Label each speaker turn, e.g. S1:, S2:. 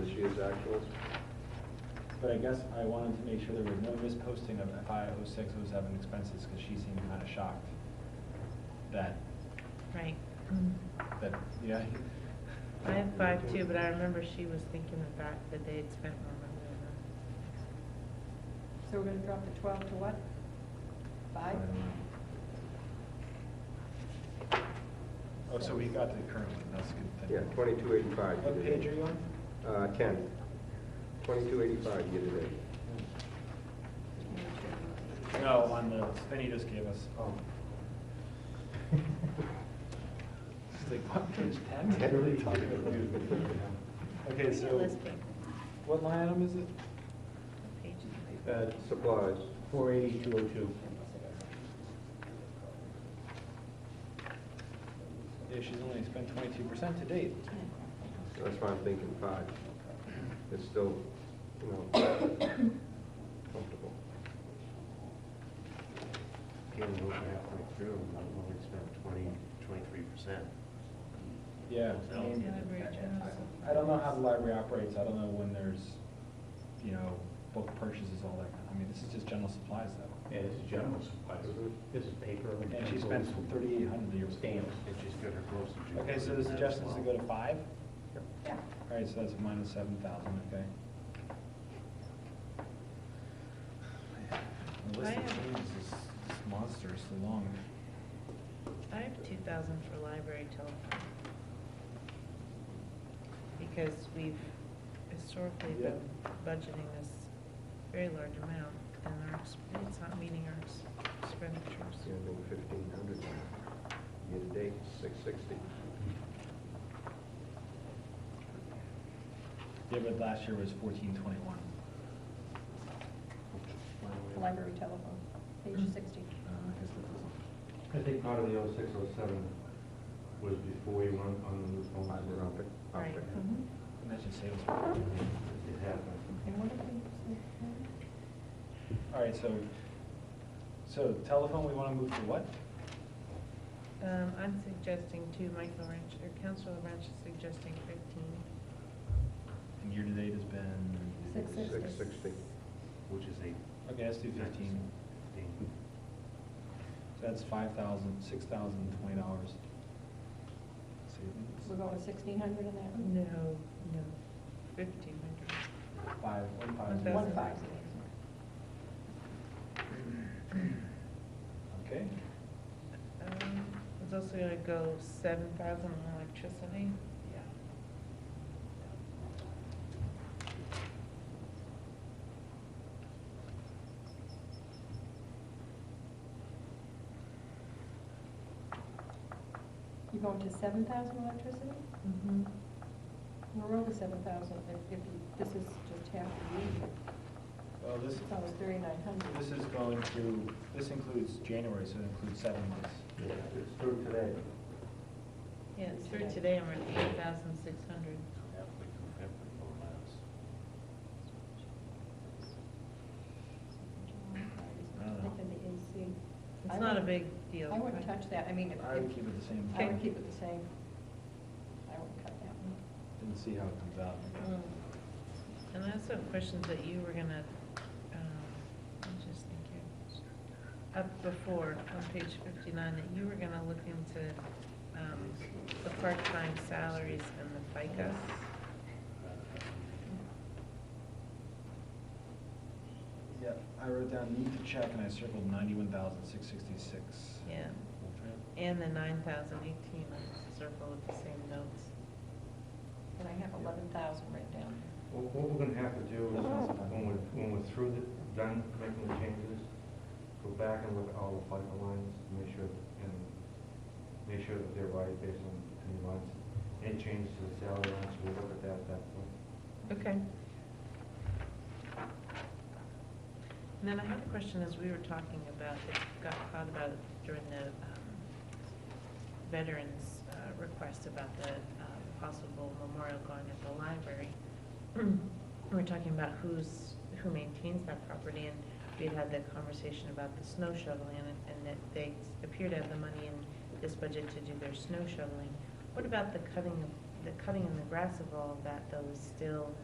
S1: to his actuals.
S2: But I guess I wanted to make sure there was no misposting of oh FI 06, 07 expenses, because she seemed kind of shocked that,
S3: Right.
S2: that, yeah.
S3: I have five too, but I remember she was thinking the fact that they had spent more money on that.
S4: So we're gonna drop the twelve to what?
S2: I
S4: Five?
S2: don't know. Oh, so we got the current one, that's good. then.
S1: Yeah, twenty-two eighty-five.
S2: What page are you on?
S1: Uh, ten. Twenty-two eighty-five, year to date.
S2: No, on the, Benny just gave us. Oh. She's like, what, page 10?
S1: Really?
S2: Okay,
S3: Give me a
S2: so,
S3: list paper.
S2: what line item is it? Uh,
S3: What page is it?
S5: At
S1: Supplies,
S5: four eighty-two oh two.
S2: Yeah, she's only spent 22% to date.
S1: that's why I'm thinking five. It's still, you know, comfortable.
S5: Came over halfway through, and I've only spent twenty, twenty-three percent.
S2: Yeah. I
S5: No.
S2: mean,
S3: Library general
S2: I don't know how the library operates, I don't know when there's, you know, book purchases, all that, kind of- I mean, this is just general supplies though.
S6: Yeah, this is general supplies.
S5: This is paper.
S2: And she spends thirty-eight hundred a year.
S5: Stamps, and she's got her gloves. and she-
S2: Okay, so the suggestion is to go to five?
S4: Yeah.
S2: All right, so that's minus seven thousand, okay? The list of
S3: I have-
S2: things is is monstrously long.
S3: I have two thousand for library telephone. Because we've historically been budgeting this very large amount, and our ex- it's not meeting our ex-
S1: Yeah,
S3: expenditures.
S1: I think fifteen hundred, year to date, six sixty.
S2: Yeah, but last year was fourteen twenty-one.
S4: Library telephone, page sixty.
S2: Uh, I guess that doesn't.
S6: I think part of the oh six, oh seven was before we went on the
S1: Five, we're up
S6: phone.
S1: it, up
S3: Right.
S1: it.
S2: Mm-hmm.
S4: Mhm.
S2: Imagine sales.
S6: It happened.
S4: And what did we say?
S2: All right, so, so telephone, we want to move to what?
S3: Um, I'm suggesting two, Michael Wrench, or Councilor Wrench is suggesting fifteen.
S2: And year-to-date has been?
S4: Six sixty.
S1: Six sixty.
S5: Which is eight.
S2: Okay, let's do fifteen.
S5: Fifteen.
S2: So that's five thousand, six thousand, twenty dollars.
S4: We're
S2: Savings,
S4: going to sixteen hundred in that one?
S3: No, no, fifteen hundred.
S2: five, one five.
S3: One
S4: One five.
S2: Okay,
S3: Um, it's also gonna go seven thousand on electricity.
S4: You're going to seven thousand electricity?
S3: Mm-hmm.
S4: We're over seven thousand if, if you, this is just half the year.
S2: well, this,
S4: It's almost thirty-nine hundred.
S2: this is going to, this includes January, so it includes seven months.
S6: Yeah, It's through today.
S3: Yeah, it's through today, and we're at eight thousand six hundred.
S5: Halfway through February, more or less.
S2: I don't know.
S4: the AC. I
S3: It's not a
S4: wouldn't-
S3: big deal.
S4: I wouldn't touch that, I mean, if,
S2: I would
S4: if-
S2: keep it the same.
S4: I would keep it the same. I wouldn't cut that one.
S2: And see how it comes out.
S3: Mm. And I also have questions that you were gonna, um, I'm just thinking, up before, on page fifty-nine, that you were gonna look into, um, the part-time salaries and the FICA.
S5: Uh,
S2: Yeah, I wrote down need to check and I circled ninety-one thousand, six sixty-six.
S3: Yeah, and the nine thousand eighteen, I circled with the same notes.
S4: And I have eleven thousand written down.
S6: What what we're gonna have to do is, when we're, when we're through, the- done making the changes, go back and look at all the flight lines, make sure, and make sure that they're right based on any lines. Any changes to the salary lines, we'll look at that at that point.
S3: Okay. And then I had a question as we were talking about, it got caught about it during the um, veterans' uh, request about the um, possible memorial going at the library. We We're talking about who's, who maintains that property, and we had had that conversation about the snow shoveling, and and that they appear to have the money in this budget to do their snow shoveling. What about the cutting, of the cutting and the grass of all of that, though, is still